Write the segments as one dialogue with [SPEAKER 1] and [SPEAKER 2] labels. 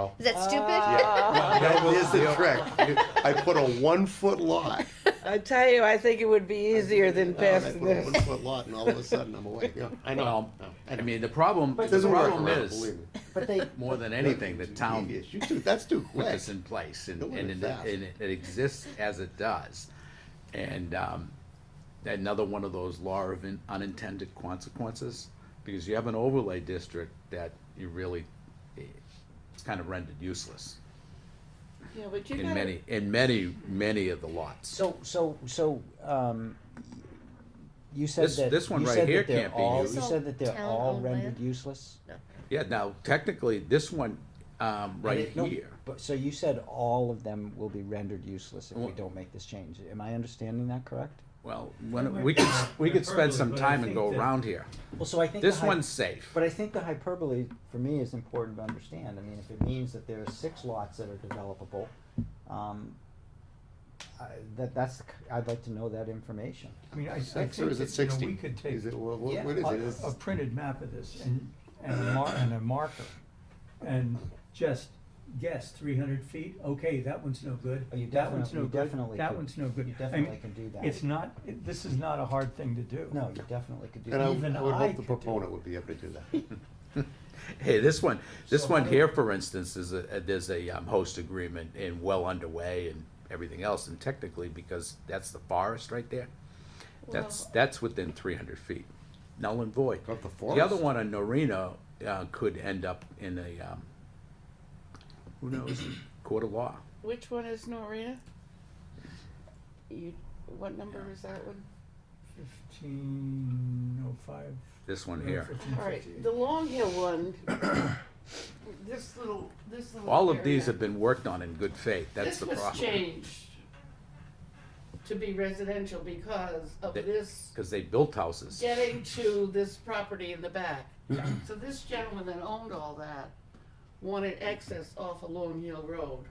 [SPEAKER 1] now.
[SPEAKER 2] Is that stupid?
[SPEAKER 1] Ah. That is the trick. I put a one-foot lot,
[SPEAKER 3] I tell you, I think it would be easier than
[SPEAKER 1] and I
[SPEAKER 3] passing
[SPEAKER 1] put a
[SPEAKER 3] this.
[SPEAKER 1] one-foot lot, and all of a sudden I'm away. Yeah, I know.
[SPEAKER 4] Well,
[SPEAKER 1] No,
[SPEAKER 4] I mean, the problem,
[SPEAKER 5] But
[SPEAKER 4] the
[SPEAKER 1] Doesn't work
[SPEAKER 4] problem
[SPEAKER 1] around,
[SPEAKER 4] is,
[SPEAKER 1] believe me.
[SPEAKER 5] But they,
[SPEAKER 4] more than anything, the town
[SPEAKER 1] Yes, you too, that's too
[SPEAKER 4] put
[SPEAKER 1] quick.
[SPEAKER 4] this in place and,
[SPEAKER 1] Doing
[SPEAKER 4] and
[SPEAKER 1] it
[SPEAKER 4] it,
[SPEAKER 1] fast.
[SPEAKER 4] and it it exists as it does. And, um, another one of those law of in- unintended consequences, because you have an overlay district that you really, eh, it's kind of rendered useless
[SPEAKER 3] Yeah, but you
[SPEAKER 4] in
[SPEAKER 3] gotta-
[SPEAKER 4] many, in many, many of the lots.
[SPEAKER 5] so, so, so, um, you said
[SPEAKER 4] This-
[SPEAKER 5] that.
[SPEAKER 4] this one
[SPEAKER 5] you
[SPEAKER 4] right
[SPEAKER 5] said
[SPEAKER 4] here
[SPEAKER 5] that they're
[SPEAKER 4] can't be
[SPEAKER 5] all-
[SPEAKER 4] used.
[SPEAKER 5] You said that they're all
[SPEAKER 2] Town-owned land?
[SPEAKER 5] rendered useless?
[SPEAKER 4] Yeah, now technically, this one, um, right
[SPEAKER 5] No,
[SPEAKER 4] here,
[SPEAKER 5] But, so you said all of them will be rendered useless if we
[SPEAKER 4] Well-
[SPEAKER 5] don't make this change. Am I understanding that correct?
[SPEAKER 4] well, when, we could, we could spend some time and go around here.
[SPEAKER 5] Well, so I think.
[SPEAKER 4] This one's safe.
[SPEAKER 5] But I think the hyperbole for me is important to understand. I mean, if it means that there are six lots that are developable, um, I, that that's the c- I'd like to know that information.
[SPEAKER 6] I mean, I, I think
[SPEAKER 1] Six or is it
[SPEAKER 6] that, you know,
[SPEAKER 1] sixty?
[SPEAKER 6] we could take uh,
[SPEAKER 1] Is it,
[SPEAKER 6] a,
[SPEAKER 1] what, what
[SPEAKER 5] Yeah.
[SPEAKER 1] what is it? Is-
[SPEAKER 6] a printed map of this and, and a mar- and a marker. And just guess three hundred feet, okay, that one's no good,
[SPEAKER 5] Oh, you
[SPEAKER 6] that one's
[SPEAKER 5] definitely-
[SPEAKER 6] no
[SPEAKER 5] you
[SPEAKER 6] good,
[SPEAKER 5] definitely
[SPEAKER 6] that
[SPEAKER 5] could-
[SPEAKER 6] one's no good.
[SPEAKER 5] you
[SPEAKER 6] I mean,
[SPEAKER 5] definitely can do that.
[SPEAKER 6] It's not, it- this is not a hard thing to do.
[SPEAKER 5] No, you definitely could do
[SPEAKER 1] And I
[SPEAKER 5] that.
[SPEAKER 6] even
[SPEAKER 1] I would
[SPEAKER 6] I
[SPEAKER 1] hope
[SPEAKER 6] could
[SPEAKER 1] the
[SPEAKER 6] do
[SPEAKER 1] proponent would be able to do that.
[SPEAKER 4] Hey, this one, this
[SPEAKER 6] So
[SPEAKER 4] one
[SPEAKER 6] how do-
[SPEAKER 4] here, for instance, is a, there's a um, host agreement and well underway and everything else, and technically, because that's the forest right there, that's, that's within three hundred feet, null and void.
[SPEAKER 1] Of the
[SPEAKER 4] The other
[SPEAKER 1] forest?
[SPEAKER 4] one on Norino, uh, could end up in a, um, who knows, court of law.
[SPEAKER 7] Which one is Norina? You, what number is that one?
[SPEAKER 6] Fifteen oh five.
[SPEAKER 4] This one here,
[SPEAKER 7] All right, the Long Hill one. This little, this little.
[SPEAKER 4] all of these
[SPEAKER 7] area.
[SPEAKER 4] have been worked on in good faith, that's the
[SPEAKER 7] This was
[SPEAKER 4] problem.
[SPEAKER 7] changed to be residential because of
[SPEAKER 4] That-
[SPEAKER 7] this,
[SPEAKER 4] Cause they built houses.
[SPEAKER 7] getting to this property in the back. So this gentleman that owned all that wanted access off of Long Hill Road.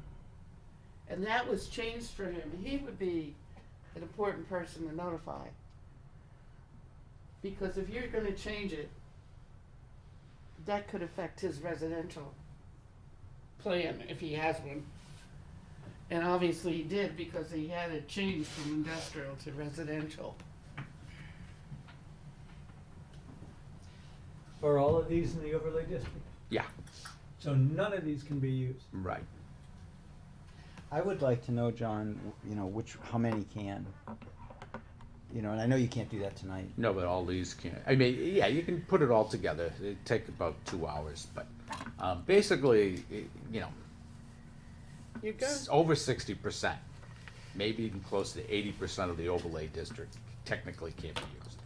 [SPEAKER 7] And that was changed for him. He would be an important person to notify. Because if you're gonna change it, that could affect his residential plan if he has one. And obviously he did because he had it changed from industrial to residential.
[SPEAKER 6] Are all of these in the overlay district?
[SPEAKER 4] Yeah,
[SPEAKER 6] So none of these can be used.
[SPEAKER 4] right.
[SPEAKER 5] I would like to know, John, w- you know, which, how many can? You know, and I know you can't do that tonight.
[SPEAKER 4] No, but all these can, I mean, yeah, you can put it all together, it'd take about two hours, but, um, basically, i- you know,
[SPEAKER 7] You
[SPEAKER 4] s- over sixty percent, maybe even close to eighty percent of the overlay district technically can't be used.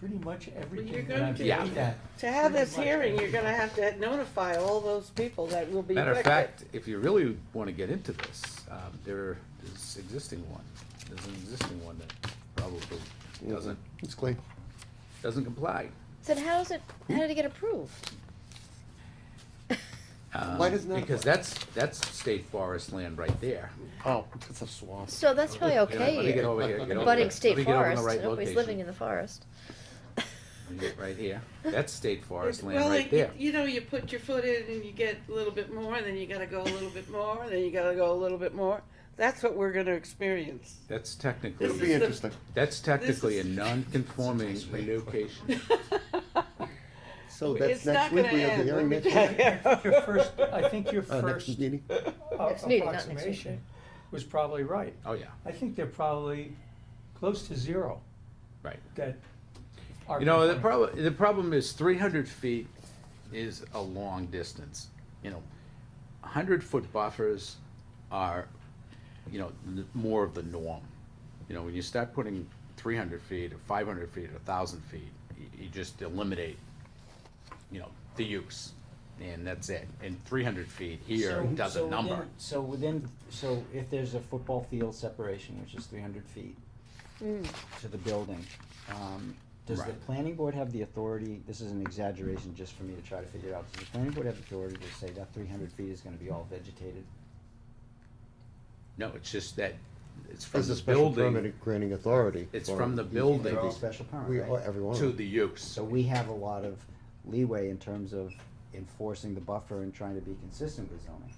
[SPEAKER 6] Pretty much everything
[SPEAKER 7] gonna
[SPEAKER 6] that I've
[SPEAKER 4] Yeah.
[SPEAKER 6] looked at.
[SPEAKER 3] To have this hearing, you're gonna have to notify all those people that will be
[SPEAKER 4] Matter of
[SPEAKER 3] affected.
[SPEAKER 4] fact, if you really wanna get into this, um, there is existing one, there's an existing one that probably
[SPEAKER 1] Mm.
[SPEAKER 4] doesn't,
[SPEAKER 1] It's clean.
[SPEAKER 4] doesn't comply.
[SPEAKER 2] So how is it? How did it get approved?
[SPEAKER 4] um,
[SPEAKER 1] Why doesn't that
[SPEAKER 4] Because that's, that's state forest land right there.
[SPEAKER 1] Oh, it's a swamp.
[SPEAKER 2] So that's probably
[SPEAKER 4] You know, Let me
[SPEAKER 2] okay.
[SPEAKER 4] get
[SPEAKER 2] here.
[SPEAKER 4] over here, get over
[SPEAKER 2] Budding
[SPEAKER 4] here. Let
[SPEAKER 2] state
[SPEAKER 4] me get over in the
[SPEAKER 2] forest.
[SPEAKER 4] right
[SPEAKER 2] Nobody's
[SPEAKER 4] location.
[SPEAKER 2] living in the forest.
[SPEAKER 4] You get Right here. That's state forest land
[SPEAKER 7] Well,
[SPEAKER 4] right
[SPEAKER 7] like,
[SPEAKER 4] there.
[SPEAKER 7] you- you know, you put your foot in and you get a little bit more, and then you gotta go a little bit more, and then you gotta go a little bit more. That's what we're gonna experience.
[SPEAKER 1] It'll
[SPEAKER 7] This is
[SPEAKER 4] That's technically,
[SPEAKER 1] be
[SPEAKER 7] the-
[SPEAKER 1] interesting.
[SPEAKER 4] that's technically a
[SPEAKER 7] is-
[SPEAKER 4] non-conforming relocation.
[SPEAKER 1] So
[SPEAKER 7] It's
[SPEAKER 1] that's next
[SPEAKER 7] not
[SPEAKER 1] week,
[SPEAKER 7] gonna
[SPEAKER 1] we have the
[SPEAKER 7] end,
[SPEAKER 1] hearing
[SPEAKER 7] let
[SPEAKER 1] next
[SPEAKER 7] me
[SPEAKER 1] week,
[SPEAKER 6] Your first, I think your
[SPEAKER 5] Oh,
[SPEAKER 1] uh,
[SPEAKER 6] first
[SPEAKER 1] next meeting?
[SPEAKER 6] uh,
[SPEAKER 2] Next meeting, not next week,
[SPEAKER 6] approximation was probably right.
[SPEAKER 4] Oh, yeah,
[SPEAKER 6] I think they're probably close to zero
[SPEAKER 4] right.
[SPEAKER 6] that are.
[SPEAKER 4] You know, the
[SPEAKER 6] compliant.
[SPEAKER 4] problem, the problem is three hundred feet is a long distance, you know. Hundred-foot buffers are, you know, n- more of the norm. You know, when you start putting three hundred feet or five hundred feet or thousand feet, you, you just eliminate, you know, the use. And that's it. And three hundred feet here
[SPEAKER 5] So-
[SPEAKER 4] does
[SPEAKER 5] so
[SPEAKER 4] a number.
[SPEAKER 5] within- So within, so if there's a football field separation, which is three hundred feet to the building, um, does the
[SPEAKER 4] Right.
[SPEAKER 5] planning board have the authority, this is an exaggeration just for me to try to figure out, does the planning board have the authority to say that three hundred feet is gonna be all vegetated?
[SPEAKER 4] No, it's just that, it's from
[SPEAKER 1] There's
[SPEAKER 4] the
[SPEAKER 1] a special
[SPEAKER 4] building
[SPEAKER 1] permit granting authority.
[SPEAKER 4] It's
[SPEAKER 1] for
[SPEAKER 4] from the
[SPEAKER 1] each
[SPEAKER 4] building.
[SPEAKER 1] of
[SPEAKER 5] They're all
[SPEAKER 1] these.
[SPEAKER 5] special
[SPEAKER 1] We,
[SPEAKER 5] permit,
[SPEAKER 1] all-
[SPEAKER 5] right?
[SPEAKER 1] every one of
[SPEAKER 4] to
[SPEAKER 1] them.
[SPEAKER 4] the use.
[SPEAKER 5] So we have a lot of leeway in terms of enforcing the buffer and trying to be consistent with zoning.